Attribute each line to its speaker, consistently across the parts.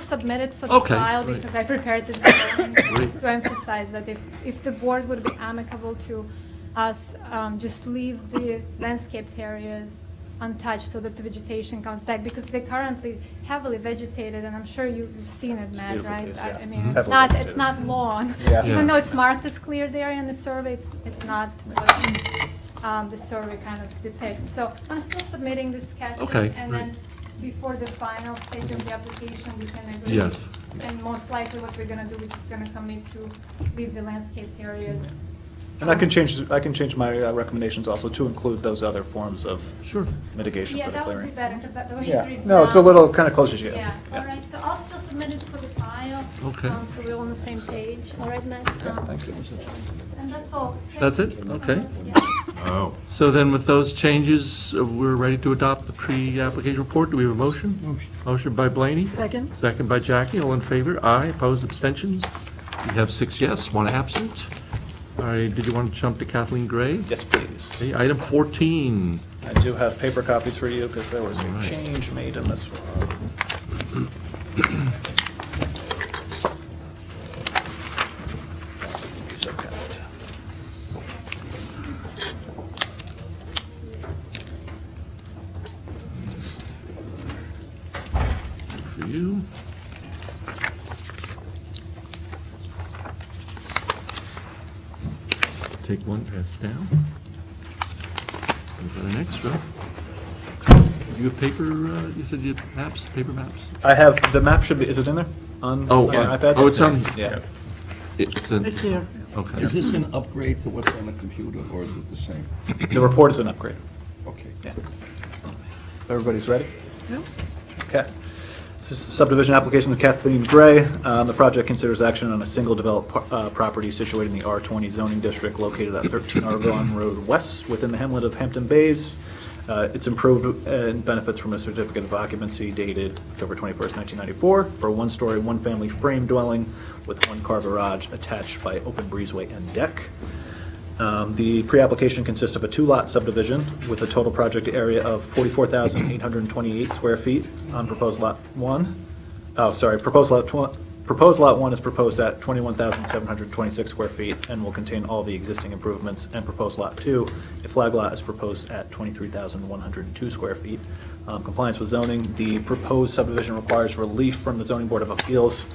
Speaker 1: submitted for the
Speaker 2: Okay,
Speaker 1: file
Speaker 2: great.
Speaker 1: because I prepared this beforehand,
Speaker 2: Great.
Speaker 1: just to emphasize that if, if the board would be amicable to us, um, just leave the landscaped areas untouched so that the vegetation comes back, because they're currently heavily vegetated, and I'm sure you- you've seen it, Matt,
Speaker 3: beautiful
Speaker 1: right?
Speaker 3: place,
Speaker 1: I-
Speaker 3: yeah.
Speaker 1: I mean, it's
Speaker 3: Heavily
Speaker 1: not, it's
Speaker 3: vegetated.
Speaker 1: not lawn.
Speaker 3: Yeah.
Speaker 2: Yeah.
Speaker 1: Even though it's marked as cleared area in the survey, it's, it's not what um, the survey kind of depicts. So I'm still submitting this sketch.
Speaker 2: Okay,
Speaker 1: And
Speaker 2: great.
Speaker 1: then before the final stage of the application, we can agree.
Speaker 2: Yes.
Speaker 1: And most likely what we're gonna do, we're just gonna commit to leave the landscape areas.
Speaker 3: And I can change, I can change my uh, recommendations also to include those other forms of
Speaker 2: Sure.
Speaker 3: mitigation
Speaker 1: Yeah,
Speaker 3: for the
Speaker 1: that would be
Speaker 3: clearing.
Speaker 1: better, because that the way it
Speaker 3: Yeah,
Speaker 1: reads
Speaker 3: no, it's a
Speaker 1: now-
Speaker 3: little kind of closer to you.
Speaker 1: Yeah, all right, so I'll still submit it for the file.
Speaker 2: Okay.
Speaker 1: um, So we're on the same page, all right, Matt?
Speaker 3: Yeah, thank you.
Speaker 1: And that's all.
Speaker 2: That's it? Okay.
Speaker 1: Yeah.
Speaker 4: Oh,
Speaker 2: So then with those changes, uh, we're ready to adopt the pre-application report. Do we have a motion? Motion. by Blaney.
Speaker 5: Second?
Speaker 2: Second by Jackie. All in favor? Aye. Opposed? Abstentions? We have six yes, one absent. All right, did you want to jump to Kathleen Gray?
Speaker 3: Yes, please.
Speaker 2: Okay, Item 14.
Speaker 3: I do have paper copies for you because there was
Speaker 2: All
Speaker 3: a
Speaker 2: right.
Speaker 3: change made in this one. So kind.
Speaker 2: for you. Take one, pass it down. Go to the next row. You have paper, uh, you said you have maps, paper maps?
Speaker 3: I have, the map should be, is it in there? On
Speaker 2: Oh,
Speaker 3: on
Speaker 2: yeah.
Speaker 3: iPad?
Speaker 2: Oh, it's on-
Speaker 3: Yeah.
Speaker 2: It's a,
Speaker 5: It's here.
Speaker 2: okay.
Speaker 4: is this an upgrade to what's on the computer, or is it the same?
Speaker 3: The report is an upgrade.
Speaker 4: Okay.
Speaker 3: Yeah. Everybody's ready?
Speaker 5: Yeah.
Speaker 3: Okay. This is the subdivision application of Kathleen Gray. Um, The project considers action on a single developed par- uh, property situated in the R20 zoning district located at 13 Argonne Road West within the hamlet of Hampton Bays. Uh, It's improved and benefits from a certificate of occupancy dated October 21st, 1994, for a one-story, one-family frame dwelling with one car garage attached by open breezeway and deck. Um, The pre-application consists of a two-lot subdivision with a total project area of 44,828 square feet on proposed lot one. Oh, sorry, proposed lot twen- proposed lot one is proposed at 21,726 square feet and will contain all the existing improvements. And proposed lot two, a flag lot, is proposed at 23,102 square feet. Um, Compliance with zoning, the proposed subdivision requires relief from the zoning board of appeals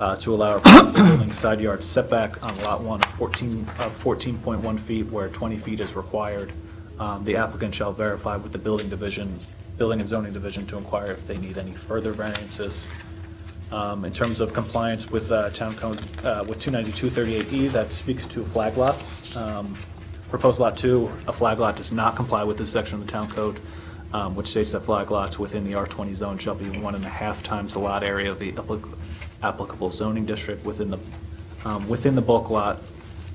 Speaker 3: uh, to allow a presence of building side yard setback on lot one of 14, of 14.1 feet where 20 feet is required. Um, The applicant shall verify with the building division, building and zoning division to inquire if they need any further variances. Um, In terms of compliance with uh, town code, uh, with 29238E, E, that speaks to flag lots. Um, Proposed lot two, a flag lot does not comply with this section of the town code, um, which states that flag lots within the R20 zone shall be one and a half times the lot area of the applic- applicable zoning district within the, um, within the bulk lot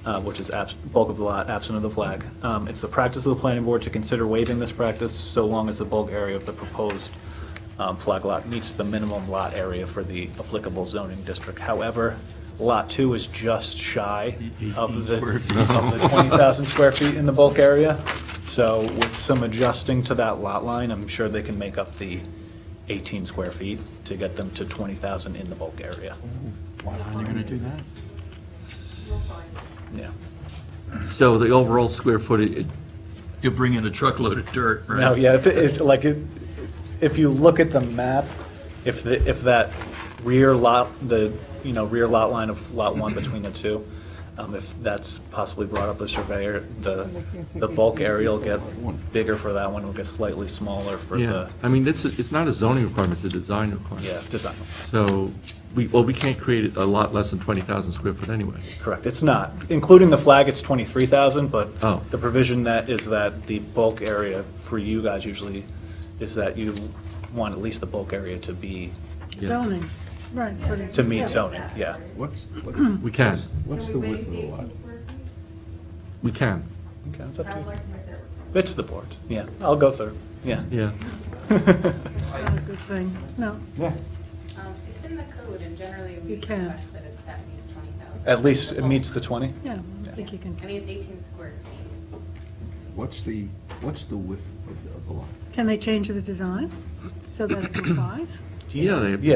Speaker 3: uh, which is abs- bulk of the lot, absent of the flag. Um, It's the practice of the planning board to consider waiving this practice so long as the bulk area of the proposed um, flag lot meets the minimum lot area for the applicable zoning district. However, Lot 2 is just shy of the of the 20,000 square feet in the bulk area, so with some adjusting to that lot line, I'm sure they can make up the 18 square feet to get them to 20,000 in the bulk area.
Speaker 2: How are they going to do that?
Speaker 3: Yeah.
Speaker 2: So the overall square footage,
Speaker 6: You bring in a truckload of dirt, right?
Speaker 3: No, yeah, if, if, like, it- if you look at the map, if the, if that rear lot, the, you know, rear lot line of lot one between the two, um, if that's possibly brought up the surveyor, the, the bulk area will get bigger for that one, will get slightly smaller for
Speaker 2: yeah,
Speaker 3: the,
Speaker 2: I mean, it's, it's not a zoning requirement, it's a design requirement.
Speaker 3: yeah, design.
Speaker 2: So, we, well, we can't create a lot less than 20,000 square foot anyway.
Speaker 3: Correct, it's not, including the flag, it's twenty-three thousand, but
Speaker 2: Oh.
Speaker 3: the provision that is that the bulk area for you guys usually is that you want at least the bulk area to be,
Speaker 2: Yeah.
Speaker 5: Zoning, right. but it-
Speaker 3: to meet
Speaker 5: yeah.
Speaker 3: zoning, yeah.
Speaker 4: What's, what-
Speaker 2: We can,
Speaker 4: what's the width of the lot?
Speaker 2: we can,
Speaker 3: Okay, it's up
Speaker 7: Um,
Speaker 3: to you. It's the board, yeah. I'll go through, yeah.
Speaker 2: yeah.
Speaker 5: It's not a good thing, no.
Speaker 7: Um, It's in the code, and generally we
Speaker 5: You can.
Speaker 7: request that it's at least 20,000.
Speaker 3: At least it meets the 20.
Speaker 5: Yeah, I think you can,
Speaker 7: I mean, it's 18 square feet.
Speaker 4: What's the, what's the width of the- of the lot?
Speaker 5: can they change the design so that it complies?
Speaker 2: Yeah, they,